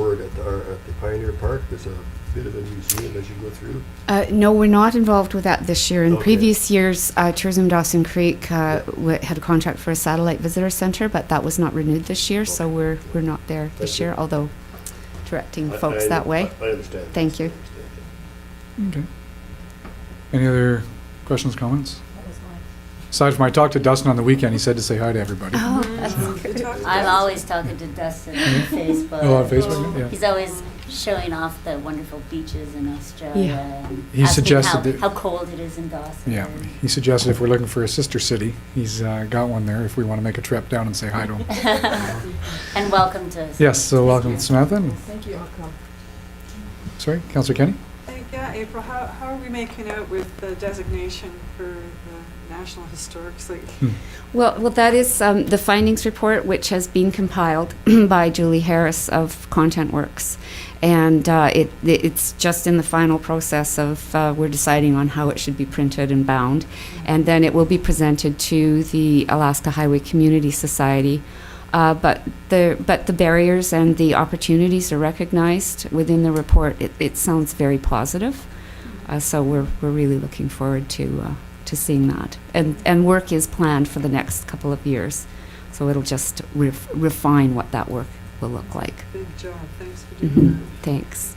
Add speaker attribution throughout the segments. Speaker 1: at the, or at the Pioneer Park, there's a bit of a museum as you go through.
Speaker 2: Uh, no, we're not involved with that this year. In
Speaker 1: Okay.
Speaker 2: previous years, uh, Tourism Dawson Creek uh, w- had a contract for a satellite visitor center, but that was not renewed this year, so
Speaker 1: Okay.
Speaker 2: we're we're not there this
Speaker 1: Thank you.
Speaker 2: year. Although directing
Speaker 1: I-
Speaker 2: folks
Speaker 1: I-
Speaker 2: that way.
Speaker 1: I I understand.
Speaker 2: Thank you.
Speaker 1: I understand.
Speaker 3: Okay. Any other questions, comments? Aside from I talked to Dustin on the weekend, he said to say hi to everybody. Oh,
Speaker 2: oh, that's
Speaker 4: I'm always talking to Dustin on Facebook.
Speaker 3: Hmm? Oh, on Facebook, yeah.
Speaker 4: He's always showing off the wonderful beaches in Australia.
Speaker 2: Yeah.
Speaker 4: and
Speaker 3: He
Speaker 4: asking
Speaker 3: suggested
Speaker 4: how,
Speaker 3: that-
Speaker 4: how cold it is in Dawson.
Speaker 3: Yeah, he suggested if we're looking for a sister city, he's uh, got one there if we want to make a trip down and say hi to him.
Speaker 4: and welcome to.
Speaker 3: Yes, so welcome Samantha. and-
Speaker 5: Thank you.
Speaker 3: Sorry, Councillor Kenny?
Speaker 6: Thank- Yeah, April, how, how are we making out with the designation for the National Historic Site?
Speaker 2: Well, well, that is um, the findings report, which has been compiled by Julie Harris of Content Works, and uh, it, it- it's just in the final process of uh, we're deciding on how it should be printed and bound, and then it will be presented to the Alaska Highway Community Society. Uh, but the but the barriers and the opportunities are recognized within the report. It, it sounds very positive. Uh, so we're, we're really looking forward to, uh, to seeing that. And, and work is planned for the next couple of years. So it'll just ref- refine what that work will look like.
Speaker 6: Big job, thanks for
Speaker 2: Mhm.
Speaker 6: doing
Speaker 2: Thanks.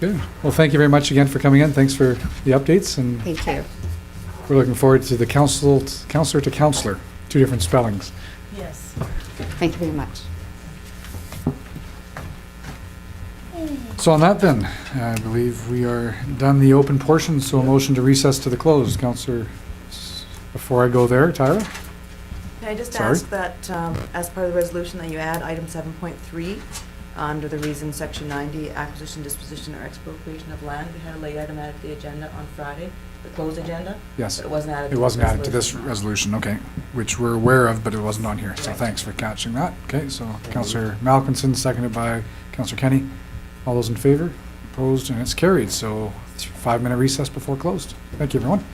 Speaker 3: Good. Well, thank you very much again for coming in. Thanks for the updates, and
Speaker 2: Thank you.
Speaker 3: we're looking forward to the council, counselor to counselor, two different spellings.
Speaker 5: Yes.
Speaker 2: Thank you very much.
Speaker 3: So on that then, I believe we are done the open portion, so a motion to recess to the closed. Counselor, s- before I go there, Tyra?
Speaker 5: Can I just
Speaker 3: Sorry?
Speaker 5: ask that, um, as part of the resolution, that you add item 7.3 under the reason, section 90, acquisition, disposition, or expropriation of land? We had a late item added to the agenda on Friday, the closed agenda,
Speaker 3: Yes,
Speaker 5: but it wasn't added. to
Speaker 3: it
Speaker 5: the
Speaker 3: wasn't added to this
Speaker 5: resolution.
Speaker 3: resolution, okay, which we're aware of, but it wasn't on here, so
Speaker 5: Right.
Speaker 3: thanks for catching that. Okay, so Counselor Malcolmson, seconded by Counselor Kenny. All those in favor? Opposed, and it's carried, so it's five-minute recess before closed. Thank you, everyone.